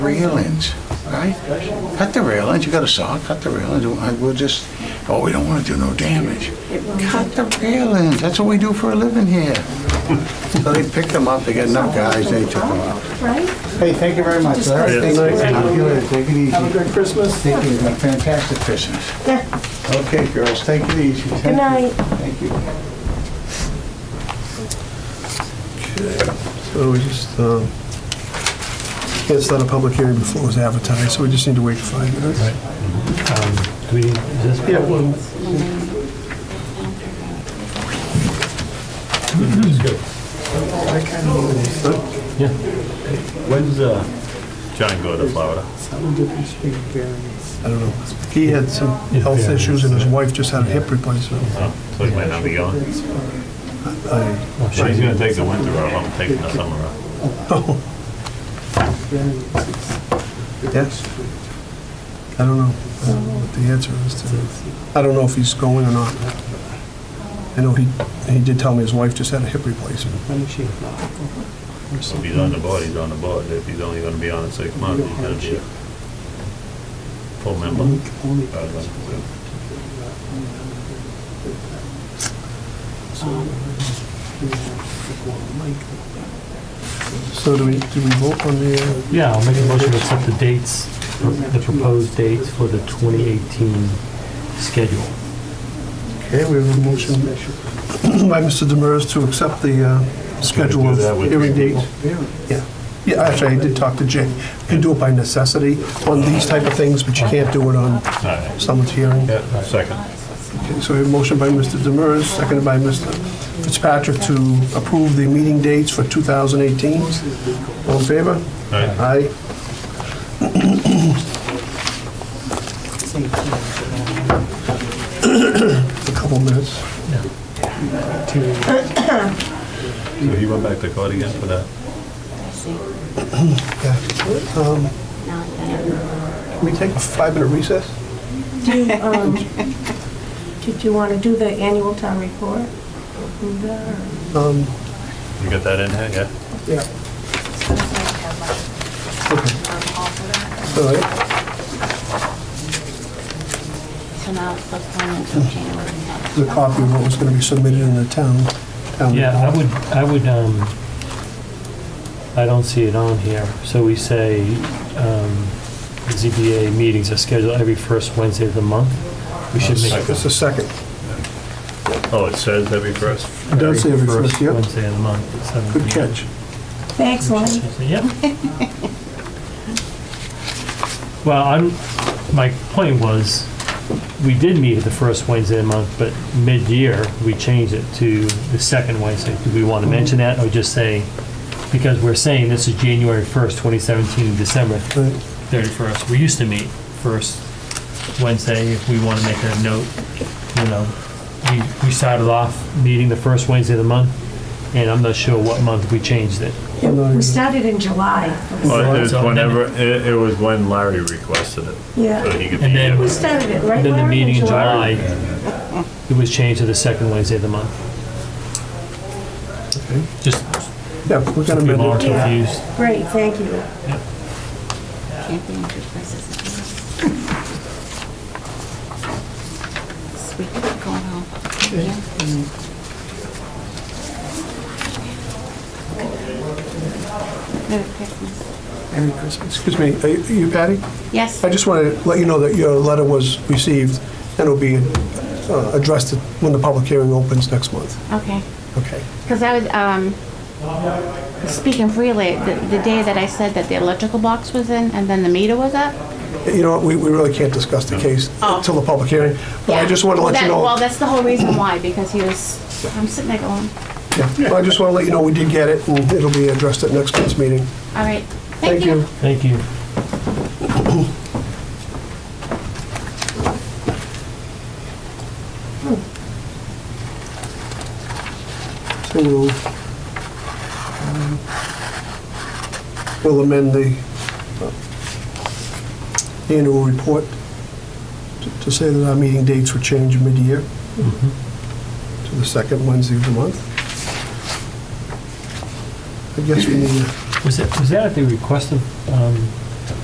railings, right? Cut the railings, you got a saw, cut the railings, I- we'll just, oh, we don't wanna do no damage. Cut the railings, that's what we do for a living here. So they picked them up, they got enough guys, they took them out. Hey, thank you very much. Larry. Thank you. Thank you. Take it easy. Have a good Christmas. Thank you, a fantastic Christmas. Okay, girls, take it easy. Thank you. night. Thank you. So we just, um, yeah, it's not a public hearing before it was advertised, so we just need to wait five minutes. Do we, is this? Yeah, well, When's, uh, John go to Florida? I don't know. He had some health issues and his wife just had a hip replacement. Oh, So he might not be going. He's gonna take the winter off, I'm taking the summer off. Yes? I don't know I don't know what the answer is to that. I don't know if he's going or not. I know he, he did tell me his wife just had a hip replacement. If he's on the board, he's on the board. If he's only gonna be on it six months, he's gonna be a full member. So do we, do we vote on the, uh, Yeah, I'll make a motion to accept the dates, the proposed dates for the 2018 schedule. okay, we have a motion by Mr. Demers to accept the uh, schedule of Do that with hearing date. people. Yeah, Yeah. actually, I did talk to Jay. You can do it by necessity on these type of things, but you can't do it on Alright, someone's hearing. yeah, second. Okay, So we have a motion by Mr. Demers, seconded by Mr. Fitzpatrick to approve the meeting dates for 2018. All in favor? Alright, Aye. A couple minutes. so he went back to court again for that? Can we take a five-minute recess? um, Did you want to do the annual town report? No. Um, You got that in here, yeah? Yeah. Okay. All right. So now it's postponed until January. The copy of what was going to be submitted in the town. town Yeah, I report. would, I would, um, I don't see it on here. So we say, um, ZBA meetings are scheduled every first Wednesday of the month. We should make it It's the second. Oh, it says every first? It does say every first, first yep. Wednesday of the month. at 7 Good p.m. catch. Thanks, Lonnie. Yeah. Well, I'm, my point was, we did meet at the first Wednesday of the month, but mid-year, we changed it to the second Wednesday. Do we want to mention that or just say, because we're saying this is January 1st, 2017, December Right. 31st. We used to meet first Wednesday, if we want to make a note, you know. We, we started off meeting the first Wednesday of the month, and I'm not sure what month we changed it. We started in July. Well, Oh, it was So- whenever, it, it was when Larry requested it, so Yeah. he could be And then- here. We started it, right? Then the Lauren, meeting in July, it was changed to the second Wednesday of the month. Just Yeah, we're going to people are amend it. confused. Great, thank you. Can't be in two places at once. Sweet, going home. Merry Christmas. Excuse me, are you- you Patty? Yes, I just want to let you know that your letter was received and will be uh, addressed when the public hearing opens next month. okay. Okay. Because I was, um, speaking freely, the, the day that I said that the electrical box was in and then the meter was up. You know, what, we we really can't discuss the case Oh. until the public hearing, but I Yeah. just want to let That- you Well, know. that's the whole reason why, because he was, I'm sitting there going, Yeah, I just want to let you know we did get it, and it'll be addressed at next month's meeting. all right, thank you. Thank you. So we'll, um, we'll amend the uh, annual report to- to say that our meeting dates were changed mid-year to the second Wednesday of the month. I guess we need, Was it, was that at the request of, um,